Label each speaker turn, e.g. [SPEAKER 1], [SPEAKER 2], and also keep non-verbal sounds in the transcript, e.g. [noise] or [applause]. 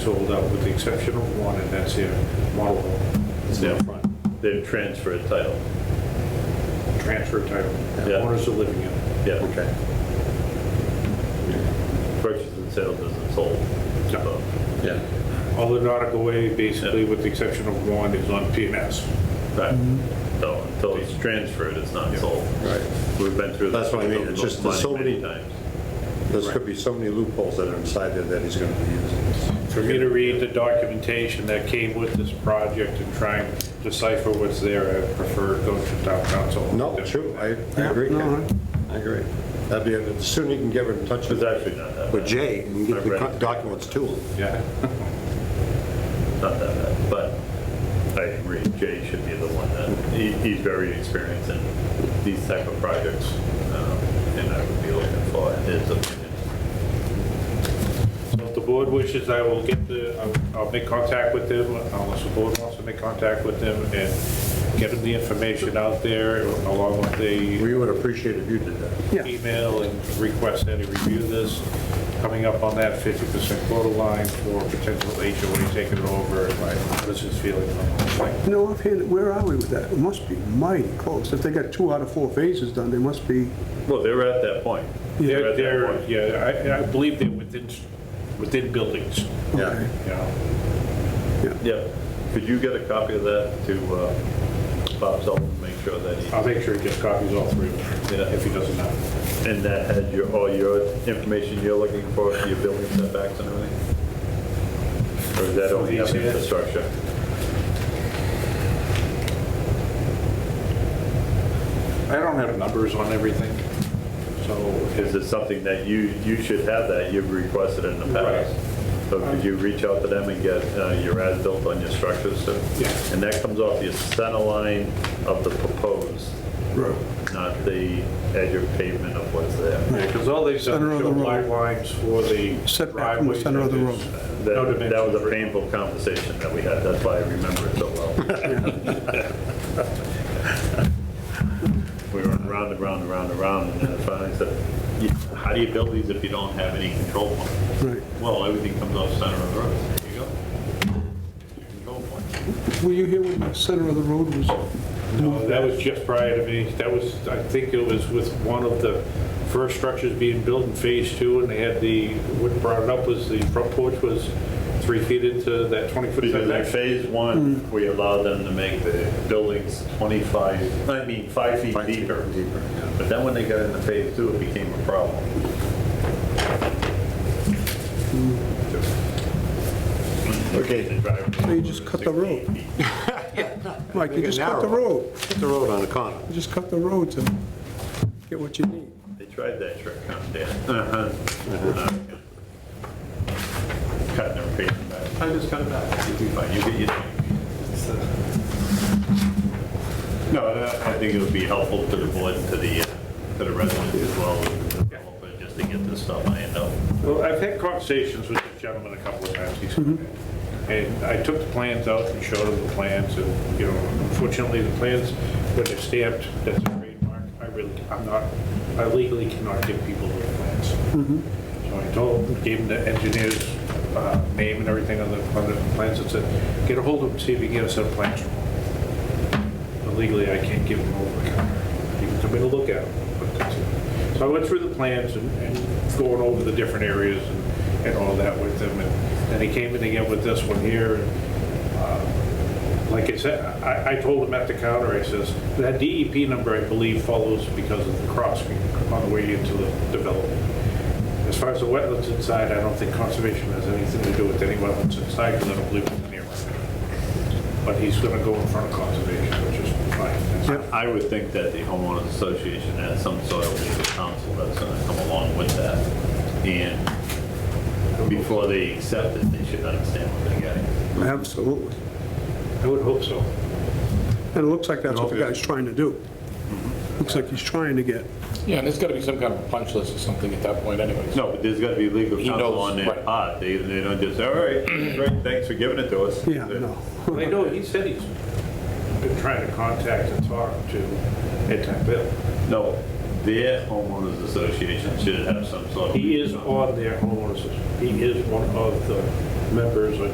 [SPEAKER 1] sold out with the exception of one, and that's their model home.
[SPEAKER 2] It's their front. They've transferred title.
[SPEAKER 1] transfer title.
[SPEAKER 2] Yeah.
[SPEAKER 1] Owners are living in it.
[SPEAKER 2] Yeah. Okay. Purchase and sale isn't sold.
[SPEAKER 1] Yeah.
[SPEAKER 2] So,
[SPEAKER 3] Yeah.
[SPEAKER 1] All the nautical way, basically, with the exception of one, is on PMS.
[SPEAKER 2] right. So until it's transferred, it's not sold.
[SPEAKER 3] Mm-hmm. Right.
[SPEAKER 2] We've been through.
[SPEAKER 3] That's what I mean.
[SPEAKER 2] this
[SPEAKER 3] It's just there's so
[SPEAKER 2] many
[SPEAKER 3] many-
[SPEAKER 2] times.
[SPEAKER 3] There's could be so many loopholes that are inside there that he's gonna be using.
[SPEAKER 1] For me to read the documentation that came with this project and try and decipher what's there, I prefer to go to town council.
[SPEAKER 3] No, true, I, I agree, Ken. I agree. That'd be, the sooner you can get in touch with,
[SPEAKER 2] It's actually not that
[SPEAKER 3] with
[SPEAKER 2] bad.
[SPEAKER 3] Jay and get the
[SPEAKER 2] I've read
[SPEAKER 3] co-
[SPEAKER 2] it.
[SPEAKER 3] documents to him.
[SPEAKER 1] Yeah.
[SPEAKER 2] Not that bad, but I agree. Jay should be the one that, he, he's very experienced in these type of projects. um, And I would be looking for his opinion.
[SPEAKER 1] So If the board wishes, I will get the, I'll- I'll make contact with them, unless the board wants to make contact with them, and get them the information out there, along with the
[SPEAKER 3] We would appreciate if you did that.
[SPEAKER 1] email and request that he review this, coming up on that 50% quota line for potential HOA taking it over, and like, what's his feeling on the whole thing?
[SPEAKER 4] You know, offhand, where are we with that? It must be mighty close. If they got two out of four phases done, they must be,
[SPEAKER 2] Well, they're at that point.
[SPEAKER 1] They're,
[SPEAKER 2] They're at that point.
[SPEAKER 1] they're, yeah, I, I believe they're within, within buildings,
[SPEAKER 3] Yeah.
[SPEAKER 4] okay.
[SPEAKER 1] you know.
[SPEAKER 2] Yeah, could you get a copy of that to uh, Bob Sullivan, make sure that
[SPEAKER 1] I'll make sure he gets copies of all three of
[SPEAKER 2] Yeah.
[SPEAKER 1] them, if he doesn't have.
[SPEAKER 2] he, and that had your, all your information you're looking for, your building setbacks and everything? Or is that only have
[SPEAKER 1] These here?
[SPEAKER 2] infrastructure?
[SPEAKER 1] I don't have numbers on everything, so.
[SPEAKER 2] Is it something that you, you should have that, you've requested in the past? So could you reach out to them and get uh, your as-built on your structures? so-
[SPEAKER 1] Yeah.
[SPEAKER 2] And that comes off the center line of the proposed,
[SPEAKER 4] Right.
[SPEAKER 2] not the edge of pavement of what's there.
[SPEAKER 1] Because all these are
[SPEAKER 4] Center of the
[SPEAKER 1] show
[SPEAKER 4] road.
[SPEAKER 1] black lines for the
[SPEAKER 4] Setback from the
[SPEAKER 1] driveways.
[SPEAKER 4] center of the
[SPEAKER 1] and
[SPEAKER 4] road.
[SPEAKER 1] there's no
[SPEAKER 2] That, that was
[SPEAKER 1] dimensions
[SPEAKER 2] a
[SPEAKER 1] written.
[SPEAKER 2] painful conversation that we had, that's why I remember it so
[SPEAKER 4] [laughs]
[SPEAKER 2] well. We were round and round and round and round, and then finally I said, "You- how do you build these if you don't have any control points?
[SPEAKER 4] Right.
[SPEAKER 2] Well, everything comes off center of the road, there you go. Your Control point.
[SPEAKER 4] Were you here when the center of the road was?
[SPEAKER 1] No, That was just prior to me, that was, I think it was with one of the first structures being built in phase two, and they had the, what brought it up was the front porch was three feet into that 20-foot
[SPEAKER 2] Because in
[SPEAKER 1] setback.
[SPEAKER 2] phase one,
[SPEAKER 4] Hmm.
[SPEAKER 2] we allowed them to make the buildings 25, I mean, five feet
[SPEAKER 3] Five feet
[SPEAKER 2] deeper.
[SPEAKER 3] deeper, yeah.
[SPEAKER 2] But then when they got into phase two, it became a problem.
[SPEAKER 3] Okay,
[SPEAKER 4] They just cut the road.
[SPEAKER 3] Make
[SPEAKER 4] Mike, you
[SPEAKER 3] it
[SPEAKER 4] just cut the
[SPEAKER 3] narrow.
[SPEAKER 4] road.
[SPEAKER 3] hit the road on the corner.
[SPEAKER 4] You just cut the road to get what you need.
[SPEAKER 2] They tried that trick on Dan. Uh-huh. Cutting their paper back. I just cut it back. You'll be fine. You get your thing. It's, uh, No, I I think it would be helpful to the board, and to the, uh, to the residents as well, just to get this stuff ironed out.
[SPEAKER 1] Well, I've had conversations with this gentleman a couple of times, he's, and I took the plans out and showed him the plans, and, you know, unfortunately, the plans, when they're stamped, that's a trademark, I really, I'm not, I legally cannot give people the plans. So I told, gave him the engineer's uh, name and everything on the, on the plans, and said, get a hold of him, see if he can get us a plan. But Legally, I can't give him over the counter. You can come in and look at them, but that's it. So I went through the plans and, and going over the different areas and, and all that with them, and then he came in again with this one here, and, uh, like I said, I, I told him at the counter, I says, that DEP number, I believe, follows because of the crossing on the way into the development. As far as the wetlands inside, I don't think conservation has anything to do with any wetlands inside, because I don't believe it's near. But he's gonna go in front of conservation, which is fine. That's-
[SPEAKER 2] I would think that the homeowners association has some sort of legal counsel that's gonna come along with that. And before they accept it, they should understand what they're getting.
[SPEAKER 4] Absolutely.
[SPEAKER 1] I would hope so.
[SPEAKER 4] And it looks like that's what the guy's trying to do. Looks like he's trying to get,
[SPEAKER 5] Yeah, and there's got to be some kind of punch list or something at that point anyways.
[SPEAKER 2] No, but there's got to be legal
[SPEAKER 5] He
[SPEAKER 2] counsel
[SPEAKER 5] knows,
[SPEAKER 2] on their
[SPEAKER 5] right.
[SPEAKER 2] part. They, they don't just, all right, great, thanks for giving it to us.
[SPEAKER 4] yeah, no.
[SPEAKER 1] I know, he said he's been trying to contact and talk to Ed Tech Bill.
[SPEAKER 2] No, their homeowners association should have some sort of.
[SPEAKER 1] He is on their homeowners, he is one of the members or